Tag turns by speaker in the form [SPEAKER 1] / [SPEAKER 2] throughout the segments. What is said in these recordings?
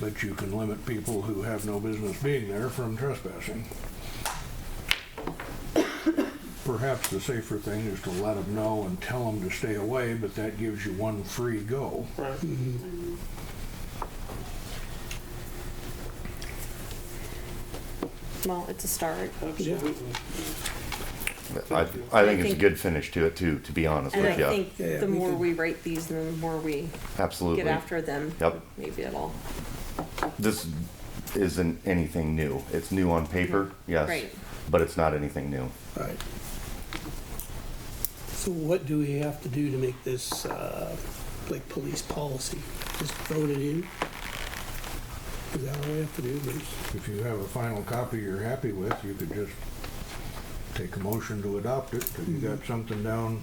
[SPEAKER 1] But you can limit people who have no business being there from trespassing. Perhaps the safer thing is to let them know and tell them to stay away, but that gives you one free go.
[SPEAKER 2] Right.
[SPEAKER 3] Well, it's a start.
[SPEAKER 2] Absolutely.
[SPEAKER 4] I, I think it's a good finish to it too, to be honest
[SPEAKER 3] And I
[SPEAKER 4] with you.
[SPEAKER 3] think
[SPEAKER 5] Yeah, yeah,
[SPEAKER 3] the
[SPEAKER 5] we
[SPEAKER 3] more
[SPEAKER 5] could-
[SPEAKER 3] we rate these, the more we
[SPEAKER 4] Absolutely.
[SPEAKER 3] get after them.
[SPEAKER 4] Yep.
[SPEAKER 3] Maybe it'll,
[SPEAKER 4] This isn't anything new. It's new on paper, yes,
[SPEAKER 3] Right.
[SPEAKER 4] but it's not anything new.
[SPEAKER 5] Right. So what do we have to do to make this, uh, like, police policy? Just vote it in? Is that all we have to do, Bruce?
[SPEAKER 1] If you have a final copy you're happy with, you could just take a motion to adopt it, because you got something down,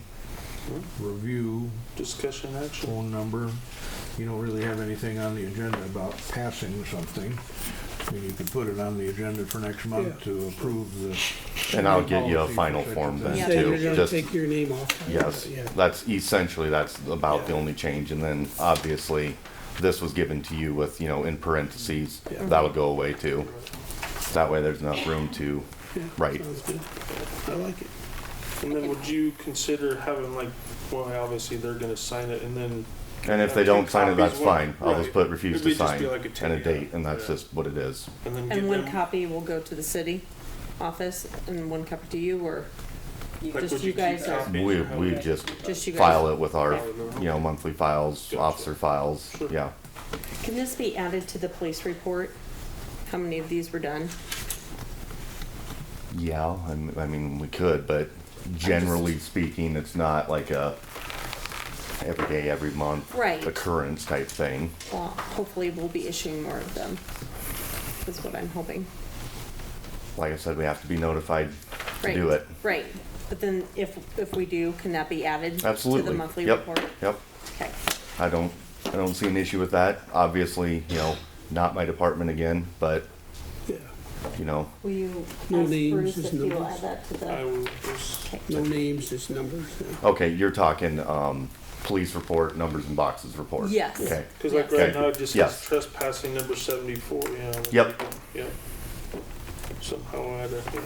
[SPEAKER 1] review,
[SPEAKER 2] Discussion action.
[SPEAKER 1] phone number. You don't really have anything on the agenda about passing something. I mean, you could put it on the agenda for next month
[SPEAKER 5] Yeah.
[SPEAKER 1] to approve the.
[SPEAKER 4] And I'll get you a
[SPEAKER 1] policy for
[SPEAKER 4] final
[SPEAKER 1] such a
[SPEAKER 4] form
[SPEAKER 1] thing.
[SPEAKER 4] then
[SPEAKER 3] Yeah.
[SPEAKER 5] Say you're
[SPEAKER 4] too.
[SPEAKER 5] gonna
[SPEAKER 4] Just,
[SPEAKER 5] take your name off.
[SPEAKER 4] yes,
[SPEAKER 5] Yeah.
[SPEAKER 4] that's essentially, that's about the
[SPEAKER 5] Yeah.
[SPEAKER 4] only change. And then obviously, this was given to you with, you know, in parentheses,
[SPEAKER 5] Yeah.
[SPEAKER 4] that'll go away too. That way there's enough room to,
[SPEAKER 5] Yeah,
[SPEAKER 4] right.
[SPEAKER 5] Sounds good. I like it.
[SPEAKER 2] And then would you consider having like, well, obviously they're gonna sign it and then,
[SPEAKER 4] and if they
[SPEAKER 2] Take
[SPEAKER 4] don't sign it,
[SPEAKER 2] copies,
[SPEAKER 4] that's
[SPEAKER 2] one-
[SPEAKER 4] fine. I'll just
[SPEAKER 2] right.
[SPEAKER 4] put refuse
[SPEAKER 2] It
[SPEAKER 4] to
[SPEAKER 2] may just
[SPEAKER 4] sign
[SPEAKER 2] be like a
[SPEAKER 4] and a
[SPEAKER 2] tag,
[SPEAKER 4] date, and that's
[SPEAKER 2] yeah.
[SPEAKER 4] just what it is.
[SPEAKER 2] and then
[SPEAKER 3] and
[SPEAKER 2] give
[SPEAKER 3] one
[SPEAKER 2] them,
[SPEAKER 3] copy will go to the city office and one copy to you or you-
[SPEAKER 2] Like, would
[SPEAKER 3] just
[SPEAKER 2] you
[SPEAKER 3] you guys
[SPEAKER 2] keep
[SPEAKER 3] or
[SPEAKER 2] copy?
[SPEAKER 4] We, we just
[SPEAKER 3] just you guys?
[SPEAKER 4] file it with our,
[SPEAKER 2] File it.
[SPEAKER 4] you know, monthly files,
[SPEAKER 2] Gotcha.
[SPEAKER 4] officer files,
[SPEAKER 2] Sure.
[SPEAKER 4] yeah.
[SPEAKER 3] Can this be added to the police report? How many of these were done?
[SPEAKER 4] Yeah, I m- I mean, we could, but generally speaking, it's not like a every day, every month
[SPEAKER 3] Right.
[SPEAKER 4] occurrence type thing.
[SPEAKER 3] Well, hopefully we'll be issuing more of them. Is what I'm hoping.
[SPEAKER 4] Like I said, we have to be notified to
[SPEAKER 3] Right.
[SPEAKER 4] do it.
[SPEAKER 3] Right. But then if, if we do, can that be added? To the
[SPEAKER 4] Absolutely.
[SPEAKER 3] monthly
[SPEAKER 4] Yep,
[SPEAKER 3] report?
[SPEAKER 4] Yep,
[SPEAKER 3] Okay.
[SPEAKER 4] I don't, I don't see an issue with that. Obviously, you know, not my department again, but,
[SPEAKER 5] Yeah.
[SPEAKER 4] you know,
[SPEAKER 3] Will you
[SPEAKER 5] No
[SPEAKER 3] ask
[SPEAKER 5] names,
[SPEAKER 3] Bruce
[SPEAKER 5] just
[SPEAKER 3] if he will
[SPEAKER 5] numbers.
[SPEAKER 3] add that to
[SPEAKER 2] I
[SPEAKER 3] the?
[SPEAKER 2] will just,
[SPEAKER 5] No names, just numbers. yeah.
[SPEAKER 4] okay, you're talking, um, police report, numbers and boxes report.
[SPEAKER 3] Yes.
[SPEAKER 4] Okay,
[SPEAKER 2] cause like right
[SPEAKER 4] Okay.
[SPEAKER 2] now, it just
[SPEAKER 4] Yes.
[SPEAKER 2] says trespassing number seventy-four, you know. and
[SPEAKER 4] Yep.
[SPEAKER 2] then, Yep. Somehow I had a, yeah.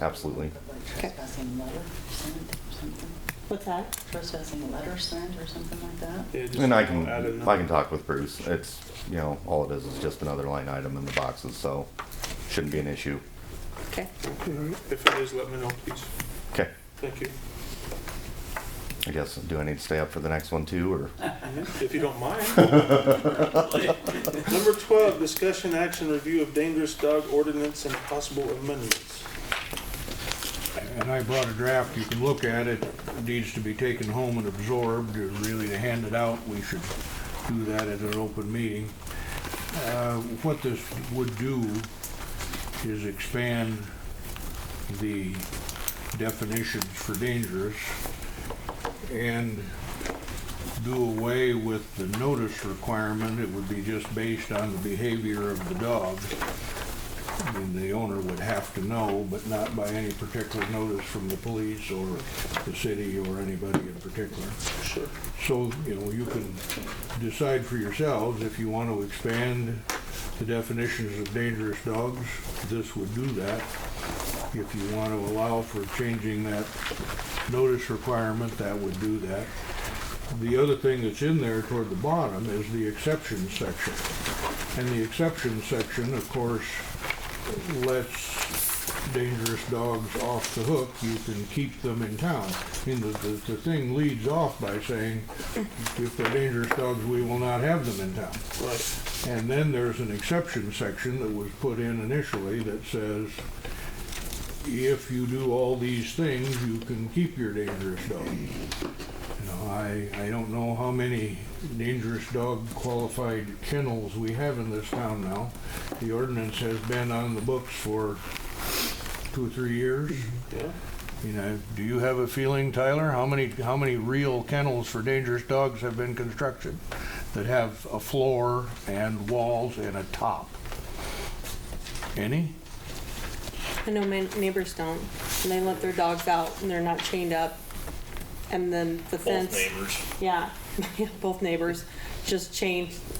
[SPEAKER 4] absolutely.
[SPEAKER 6] Like Trespassing letter sent or something?
[SPEAKER 3] What's that?
[SPEAKER 6] Trespassing letter sent or something like that?
[SPEAKER 2] yeah, just
[SPEAKER 4] And I
[SPEAKER 2] somehow
[SPEAKER 4] can,
[SPEAKER 2] add another-
[SPEAKER 4] I can talk with Bruce. It's, you know, all it is is just another line item in the boxes, so shouldn't be an issue.
[SPEAKER 3] Okay.
[SPEAKER 2] If it is, let me know, please.
[SPEAKER 4] Okay,
[SPEAKER 2] Thank you.
[SPEAKER 4] I guess, do I need to stay up for the next one too, or?
[SPEAKER 3] Uh-huh.
[SPEAKER 2] If you don't mind. Number twelve, discussion action review of dangerous dog ordinance and possible amendments.
[SPEAKER 1] And I brought a draft, you can look at it, It needs to be taken home and absorbed, or really to hand it out, we should do that at an open meeting. Uh, What this would do is expand the definitions for dangerous and do away with the notice requirement, it would be just based on the behavior of the dog. I mean, the owner would have to know, but not by any particular notice from the police or the city or anybody in particular.
[SPEAKER 2] Sure.
[SPEAKER 1] So, you know, you can decide for yourselves if you want to expand the definitions of dangerous dogs, this would do that. If you want to allow for changing that notice requirement, that would do that. The other thing that's in there toward the bottom is the exception section. And the exception section, of course, lets dangerous dogs off the hook, you can keep them in town. I mean, the, the, the thing leads off by saying, if they're dangerous dogs, we will not have them in town.
[SPEAKER 2] Right.
[SPEAKER 1] And then there's an exception section that was put in initially that says, if you do all these things, you can keep your dangerous dog. You know, I, I don't know how many dangerous dog qualified kennels we have in this town now. The ordinance has been on the books for two or three years.
[SPEAKER 2] Yeah.
[SPEAKER 1] You know, do you have a feeling, Tyler, how many, how many real kennels for dangerous dogs have been constructed that have a floor and walls and a top? Any?
[SPEAKER 3] I know my neighbors don't, and they let their dogs out and they're not chained up. And then the fence.
[SPEAKER 7] Both neighbors.
[SPEAKER 3] Yeah, both neighbors just chained